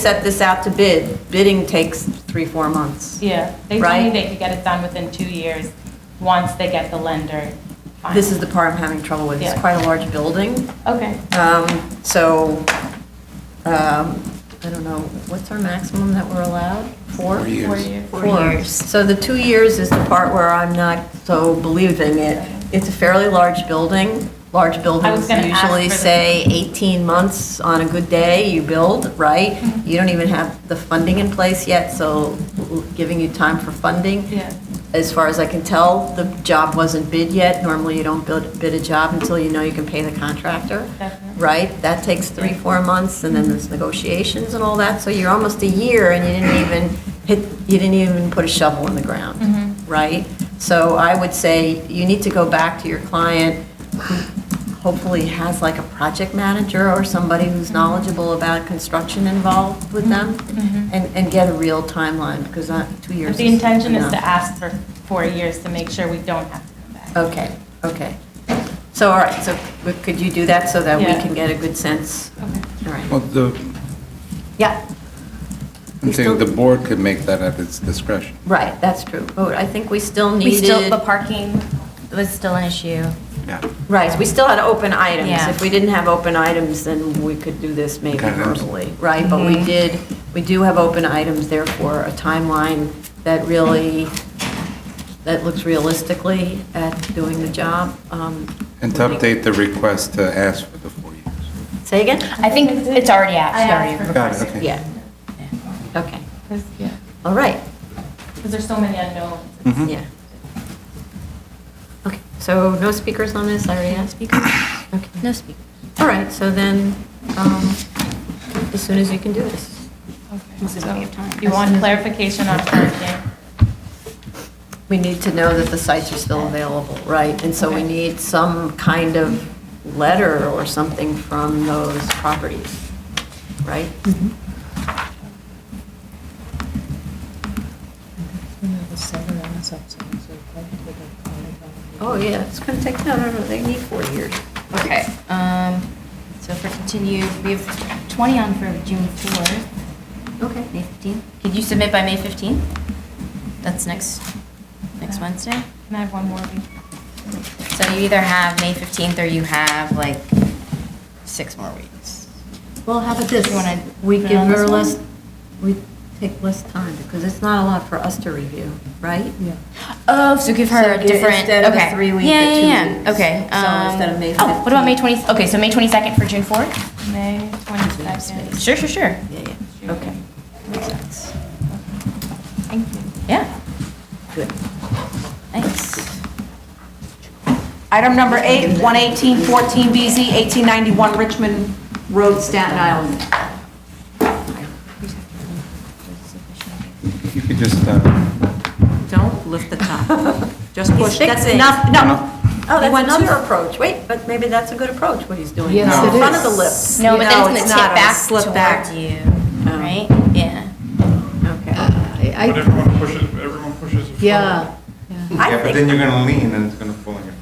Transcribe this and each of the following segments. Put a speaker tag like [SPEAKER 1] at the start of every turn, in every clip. [SPEAKER 1] set this out to bid, bidding takes three, four months.
[SPEAKER 2] Yeah, they told me
[SPEAKER 1] Right?
[SPEAKER 2] they could get it done within two years, once they get the lender. final.
[SPEAKER 1] This is the part I'm having trouble with. It's
[SPEAKER 2] Yeah.
[SPEAKER 1] quite a large building,
[SPEAKER 2] Okay,
[SPEAKER 1] Um, so, um, I don't know, what's our maximum that we're allowed? Four?
[SPEAKER 3] Four
[SPEAKER 2] four
[SPEAKER 3] years.
[SPEAKER 2] years.
[SPEAKER 1] Four. So the two years is the part where I'm not so believing it. It's a fairly large building. Large buildings
[SPEAKER 2] gonna ask
[SPEAKER 1] usually
[SPEAKER 2] for the-
[SPEAKER 1] say 18 months on a good day, you build, right?
[SPEAKER 2] Mm-hmm.
[SPEAKER 1] You don't even have the funding in place yet, so giving you time for funding
[SPEAKER 2] Yeah,
[SPEAKER 1] as far as I can tell, the job wasn't bid yet. Normally, you don't bid, bid a job until you know you can pay the contractor,
[SPEAKER 2] definitely.
[SPEAKER 1] right? That takes three, four months, and then there's negotiations and all that. So you're almost a year, and you didn't even hit, you didn't even put a shovel in the ground
[SPEAKER 2] Mhm.
[SPEAKER 1] right? So I would say you need to go back to your client, who hopefully has like a project manager or somebody who's knowledgeable about construction involved with them,
[SPEAKER 2] Mhm.
[SPEAKER 1] and, and get a real timeline, because uh, two years
[SPEAKER 2] But
[SPEAKER 1] is
[SPEAKER 2] the intention is to
[SPEAKER 1] enough.
[SPEAKER 2] ask for four years to make sure we don't have to come back.
[SPEAKER 1] Okay, okay. So, all right, so w- could you do that so that we
[SPEAKER 2] Yeah.
[SPEAKER 1] can get a good sense?
[SPEAKER 4] Oh.
[SPEAKER 2] Okay.
[SPEAKER 1] All right.
[SPEAKER 3] Well, the,
[SPEAKER 1] Yeah,
[SPEAKER 3] I'm saying the board could make that at its discretion.
[SPEAKER 1] right, that's true. But I think we still
[SPEAKER 4] We still,
[SPEAKER 1] needed,
[SPEAKER 4] but parking was still an issue.
[SPEAKER 3] Yeah.
[SPEAKER 1] right, we still had open items.
[SPEAKER 4] Yeah.
[SPEAKER 1] If we didn't have open items, then we could do this maybe
[SPEAKER 3] Kind of.
[SPEAKER 1] verbally, right? But we did, we do have open items, therefore, a timeline that really, that looks realistically at doing the job. Um,
[SPEAKER 3] And to update the request to ask for the four years.
[SPEAKER 1] Say again?
[SPEAKER 4] I think it's already out,
[SPEAKER 2] I
[SPEAKER 4] she
[SPEAKER 2] asked
[SPEAKER 4] already
[SPEAKER 2] for-
[SPEAKER 3] Got it, okay.
[SPEAKER 1] Yeah. Okay,
[SPEAKER 2] Because, yeah,
[SPEAKER 1] all right.
[SPEAKER 2] 'cause there's so many unknowns.
[SPEAKER 3] Mhm.
[SPEAKER 1] Yeah. Okay, so no speakers on this, I already asked speakers? Okay,
[SPEAKER 4] No speak.
[SPEAKER 1] all right, so then, um, as soon as you can do this.
[SPEAKER 2] Okay.
[SPEAKER 4] This is what we have time.
[SPEAKER 2] So You want clarification on parking?
[SPEAKER 1] We need to know that the sites are still available, right? And so we
[SPEAKER 2] Okay.
[SPEAKER 1] need some kind of letter or something from those properties, right? Oh, yeah, it's going to take, no, no, no, they need four years.
[SPEAKER 4] Okay, um, so for continued, we have 20 on for June 4th,
[SPEAKER 1] Okay.
[SPEAKER 4] May 15th. Could you submit by May 15th? That's next, next Wednesday?
[SPEAKER 2] Uh, Can I have one more? please?
[SPEAKER 4] So you either have May 15th or you have like six more weeks.
[SPEAKER 1] Well, how about this?
[SPEAKER 4] You wanna
[SPEAKER 1] We
[SPEAKER 4] put it
[SPEAKER 1] give
[SPEAKER 4] on this
[SPEAKER 1] her
[SPEAKER 4] one?
[SPEAKER 1] less, we take less time, because it's not a lot for us to review, right? Yeah.
[SPEAKER 4] Oh, so give her
[SPEAKER 1] So
[SPEAKER 4] a different, okay.
[SPEAKER 1] instead of a three-week,
[SPEAKER 4] Yeah,
[SPEAKER 1] a
[SPEAKER 4] yeah, yeah.
[SPEAKER 1] two-weeks.
[SPEAKER 4] Okay.
[SPEAKER 1] So
[SPEAKER 4] um,
[SPEAKER 1] instead of May
[SPEAKER 4] Oh, what about May
[SPEAKER 1] 15th?
[SPEAKER 4] 20th? Okay, so May 22nd for June 4th?
[SPEAKER 2] May
[SPEAKER 1] have
[SPEAKER 2] 22nd.
[SPEAKER 1] space.
[SPEAKER 4] Sure, sure, sure.
[SPEAKER 1] Yeah, yeah, okay,
[SPEAKER 4] Makes sense.
[SPEAKER 2] Thank you.
[SPEAKER 4] Yeah,
[SPEAKER 1] good.
[SPEAKER 4] thanks.
[SPEAKER 5] Item number eight, 11814BZ, 1891 Richmond Road, Staten Island.
[SPEAKER 3] You could just, uh,
[SPEAKER 5] Don't lift the top. Just push. That's
[SPEAKER 1] fixing.
[SPEAKER 5] enough, no.
[SPEAKER 3] no,
[SPEAKER 1] Oh, that's
[SPEAKER 5] went
[SPEAKER 1] another
[SPEAKER 5] to-
[SPEAKER 1] approach, wait, but maybe that's a good approach, what he's doing.
[SPEAKER 3] Yes, No. it
[SPEAKER 1] In front of
[SPEAKER 5] is.
[SPEAKER 1] the lips.
[SPEAKER 4] No, but
[SPEAKER 5] No,
[SPEAKER 4] then it's
[SPEAKER 5] it's
[SPEAKER 4] gonna
[SPEAKER 5] not.
[SPEAKER 4] tip
[SPEAKER 5] It'll
[SPEAKER 4] back
[SPEAKER 5] slip back.
[SPEAKER 4] towards you,
[SPEAKER 1] Oh.
[SPEAKER 4] right? Yeah.
[SPEAKER 1] Okay.
[SPEAKER 6] But everyone pushes, everyone pushes it forward.
[SPEAKER 7] Yeah,
[SPEAKER 1] I think,
[SPEAKER 3] you're going to lean and it's going to fall on you.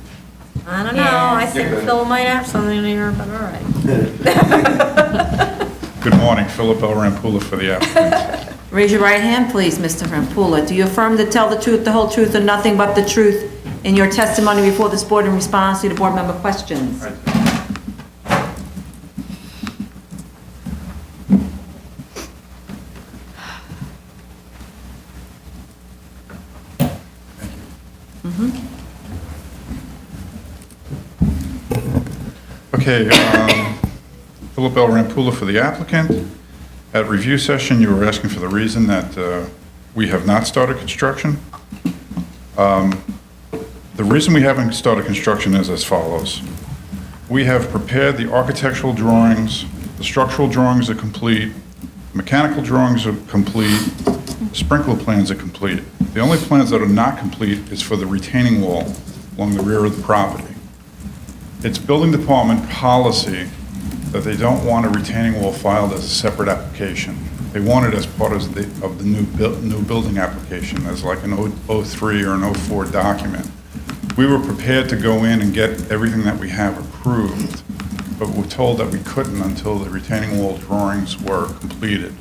[SPEAKER 1] I don't know, I
[SPEAKER 4] Yeah.
[SPEAKER 1] think Phil might have something here, but all right.
[SPEAKER 6] Good morning, Philip L. Rampula for the applicant.
[SPEAKER 5] Raise your right hand, please, Mr. Rampula. Do you affirm to tell the truth, the whole truth, and nothing but the truth in your testimony before this board in response to the board member questions? Mm-hmm.
[SPEAKER 6] Okay, um, Philip L. Rampula for the applicant. At review session, you were asking for the reason that uh, we have not started construction. Um, The reason we haven't started construction is as follows. We have prepared the architectural drawings, the structural drawings are complete, mechanical drawings are complete, sprinkler plans are complete. The only plans that are not complete is for the retaining wall along the rear of the property. It's building department policy that they don't want a retaining wall filed as a separate application. They want it as part of the, of the new, buil- new building application, as like an O- 03 or an 04 document. We were prepared to go in and get everything that we have approved, but we're told that we couldn't until the retaining wall drawings were completed.